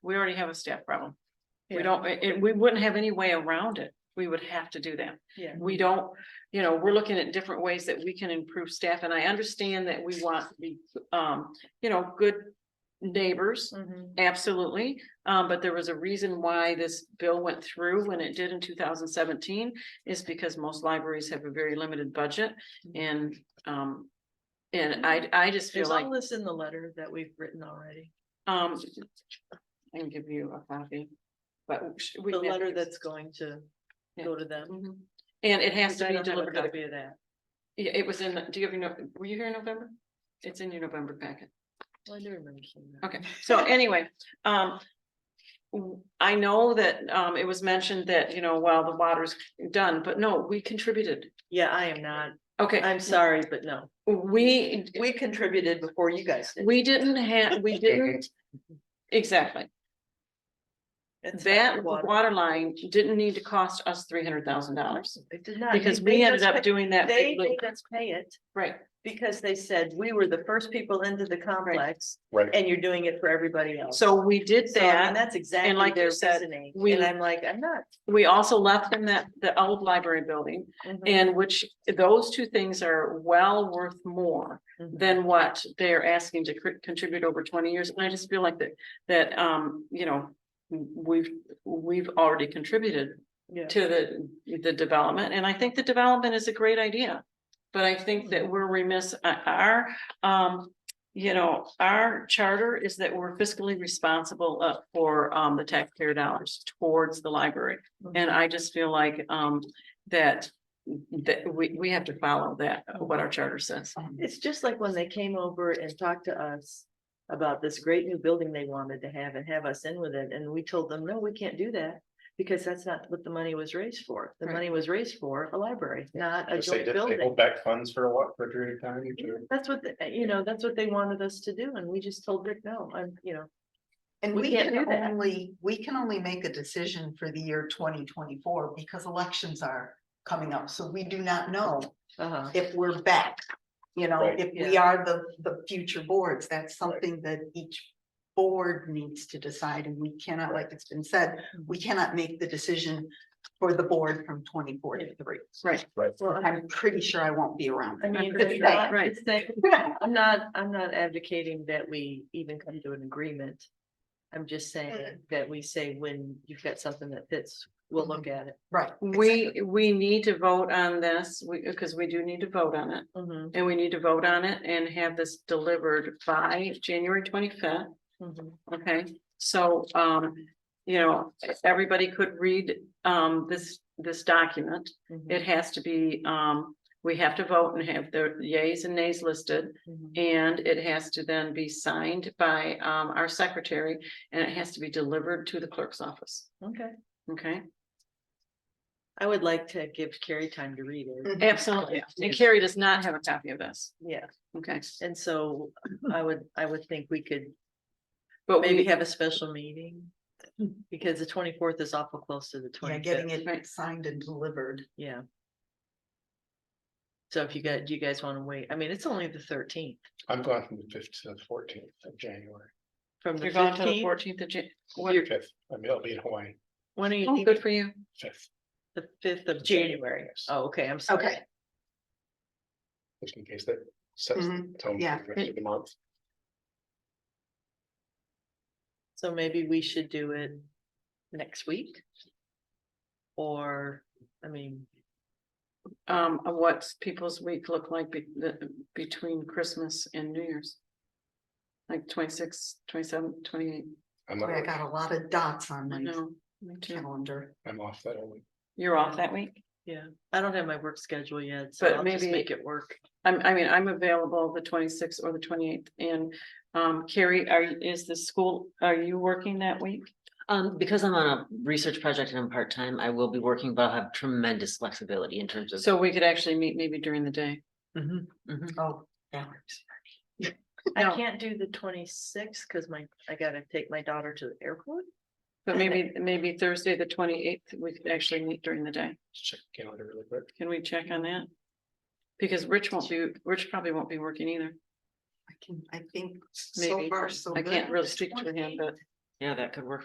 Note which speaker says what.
Speaker 1: we already have a staff problem. We
Speaker 2: Yeah.
Speaker 1: don't, and we wouldn't have any way around it. We would have to do that.
Speaker 2: Yeah.
Speaker 1: We don't, you know, we're looking at different ways that we can improve staff and I understand that we want to be, um, you know, good neighbors,
Speaker 2: Mhm.
Speaker 1: absolutely. Um, but there was a reason why this bill went through when it did in two thousand seventeen is because most libraries have a very limited budget and, um, and I, I just feel
Speaker 2: Is
Speaker 1: like,
Speaker 2: all this in the letter that we've written already?
Speaker 1: um, I can give you a copy, but we.
Speaker 2: The
Speaker 1: never
Speaker 2: letter Mm-hmm.
Speaker 1: use-
Speaker 2: that's going to
Speaker 1: Yeah.
Speaker 2: go to them?
Speaker 1: Mhm. And it has
Speaker 2: Because
Speaker 1: to
Speaker 2: I
Speaker 1: be
Speaker 2: don't have a
Speaker 1: delivered, to the-
Speaker 2: Copy of that.
Speaker 1: yeah, it was in, the- do you have your, no- were you here in November? It's in your November packet.
Speaker 2: Well, I do remember seeing that.
Speaker 1: Okay, so anyway, um. w- I know that um it was mentioned that, you know, while the water's done, but no, we contributed.
Speaker 2: Yeah, I am not.
Speaker 1: Okay,
Speaker 2: I'm sorry, but no.
Speaker 1: we,
Speaker 2: We contributed before you guys did.
Speaker 1: we didn't have, we didn't. Exactly,
Speaker 2: That's
Speaker 1: that
Speaker 2: water.
Speaker 1: water line didn't need to cost us three hundred thousand dollars.
Speaker 2: It did not.
Speaker 1: Because
Speaker 2: They
Speaker 1: we ended
Speaker 2: just
Speaker 1: up
Speaker 2: pay-
Speaker 1: doing that
Speaker 2: They
Speaker 1: big loop,
Speaker 2: made us pay it
Speaker 1: right?
Speaker 2: because they said we were the first people into the complex
Speaker 3: Right.
Speaker 2: and you're doing it for everybody else.
Speaker 1: So we did
Speaker 2: Oh. So, I mean,
Speaker 1: that.
Speaker 2: that's exactly
Speaker 1: like you
Speaker 2: their
Speaker 1: said,
Speaker 2: reasoning.
Speaker 1: we-
Speaker 2: And I'm like, I'm not.
Speaker 1: We also left them that, the old library building.
Speaker 2: Mhm.
Speaker 1: And which, those two things are well worth more
Speaker 2: Mhm.
Speaker 1: than what they're asking to cr- contribute over twenty years. And I just feel like that, that, um, you know. We've, we've already contributed
Speaker 2: Yeah.
Speaker 1: to the, the development, and I think the development is a great idea. But I think that we're remiss, uh, our, um, you know, our charter is that we're fiscally responsible uh, for, um, the taxpayer dollars towards the library. And I just feel like, um, that, that we, we have to follow that, uh, what our charter says.
Speaker 2: It's just like when they came over and talked to us about this great new building they wanted to have and have us in with it, and we told them, no, we can't do that. Because that's not what the money was raised for. The
Speaker 1: Right.
Speaker 2: money was raised for a library, not a
Speaker 3: Just They
Speaker 2: joint
Speaker 3: did- they
Speaker 2: building.
Speaker 3: hold back funds for a what, for a period of time? to-
Speaker 2: That's what, the- you know, that's what they wanted us to do, and we just told Rick, no, I'm, you know,
Speaker 4: And
Speaker 2: We
Speaker 4: we
Speaker 2: can't
Speaker 4: can
Speaker 2: do that.
Speaker 4: only, we can only make a decision for the year twenty twenty-four because elections are coming up, so we do not know
Speaker 2: uh-huh.
Speaker 4: if we're back. You know,
Speaker 3: Right.
Speaker 4: if we are the, the future boards, that's something that each board needs to decide, and we cannot, like it's been said, we cannot make the decision for the board from twenty-four to three.
Speaker 1: Right.
Speaker 3: Right.
Speaker 2: Well, I
Speaker 4: I'm pretty sure I won't be around.
Speaker 2: I mean,
Speaker 1: pretty
Speaker 2: it's
Speaker 4: sure.
Speaker 2: not-
Speaker 1: Right.
Speaker 2: it's not- I'm not, I'm not advocating that we even come to an agreement. I'm just
Speaker 1: Mm-hmm.
Speaker 2: saying that we say when you've got something that fits, we'll look
Speaker 1: Mm-hmm.
Speaker 2: at it.
Speaker 4: Right.
Speaker 1: We, we need to vote on this, we, because we do need to vote on it,
Speaker 2: Mhm,
Speaker 1: and we need to vote on it and have this delivered by January twenty-fifth.
Speaker 2: mhm.
Speaker 1: Okay, so, um, you know, everybody could read, um, this, this document. It has to be, um, we have to vote and have the yays and nays listed.
Speaker 2: Mhm.
Speaker 1: And it has to then be signed by, um, our secretary and it has to be delivered to the clerk's office.
Speaker 2: Okay,
Speaker 1: Okay,
Speaker 2: I would like to give Carrie time to read it.
Speaker 4: Mhm.
Speaker 1: absolutely. And Carrie does not have a copy of this.
Speaker 2: Yeah,
Speaker 1: Okay,
Speaker 2: and so I would, I would think we could
Speaker 1: but
Speaker 2: maybe
Speaker 1: we,
Speaker 2: have a special meeting. Because the twenty-fourth is awful close to the
Speaker 4: Yeah, getting
Speaker 2: twenty-fifth,
Speaker 1: Right.
Speaker 4: it signed and delivered.
Speaker 2: yeah. So if you got, do you guys want to wait? I mean, it's only the thirteenth
Speaker 3: I'm going from the fifth to the fourteenth of January.
Speaker 2: from the
Speaker 1: you're going to the
Speaker 2: fifteenth.
Speaker 1: fourteenth of Jan. what-
Speaker 3: Fifth, I mean, I'll be in Hawaii,
Speaker 2: When are you
Speaker 1: Oh,
Speaker 2: thinking?
Speaker 1: good for you.
Speaker 3: fifth.
Speaker 2: The fifth of January.
Speaker 3: Yes.
Speaker 2: Oh, okay, I'm sorry.
Speaker 4: Okay,
Speaker 3: Just in case that sets the
Speaker 4: Mhm.
Speaker 3: tone
Speaker 4: yeah.
Speaker 3: for the rest of the month.
Speaker 2: So maybe we should do it next week? Or, I mean,
Speaker 1: Um, of what people's week look like be- the- between Christmas and New Year's. Like 26, 27, 28.
Speaker 3: I'm,
Speaker 4: Boy, I
Speaker 3: not-
Speaker 4: got a lot of dots on
Speaker 1: I
Speaker 4: my
Speaker 1: know, me too.
Speaker 4: calendar.
Speaker 3: I'm off that only.
Speaker 1: You're off that week?
Speaker 2: yeah, I don't have my work schedule yet, so
Speaker 1: But
Speaker 2: I'll just
Speaker 1: maybe-
Speaker 2: make it work.
Speaker 1: I'm, I mean, I'm available the twenty-sixth or the twenty-eighth and, um, Carrie, are, you- is the school, are you working that week?
Speaker 5: Um, because I'm on a research project and I'm part-time, I will be working, but I'll have tremendous flexibility in terms of.
Speaker 1: So we could actually meet maybe during the day.
Speaker 5: Mhm,
Speaker 1: Mm.
Speaker 5: mhm.
Speaker 4: Oh, yeah.
Speaker 2: I
Speaker 1: No.
Speaker 2: can't do the twenty-sixth because my, I gotta take my daughter to the airport.
Speaker 1: But maybe, maybe Thursday, the twenty-eighth, we could actually meet during the day.
Speaker 3: Just Check the calendar really quick.
Speaker 1: Can we check on that? Because Rich won't be, Rich probably won't be working either.
Speaker 4: I can, I think so
Speaker 1: Maybe.
Speaker 4: far so
Speaker 1: I
Speaker 4: good.
Speaker 1: can't really speak to him, but.
Speaker 5: Yeah, that could work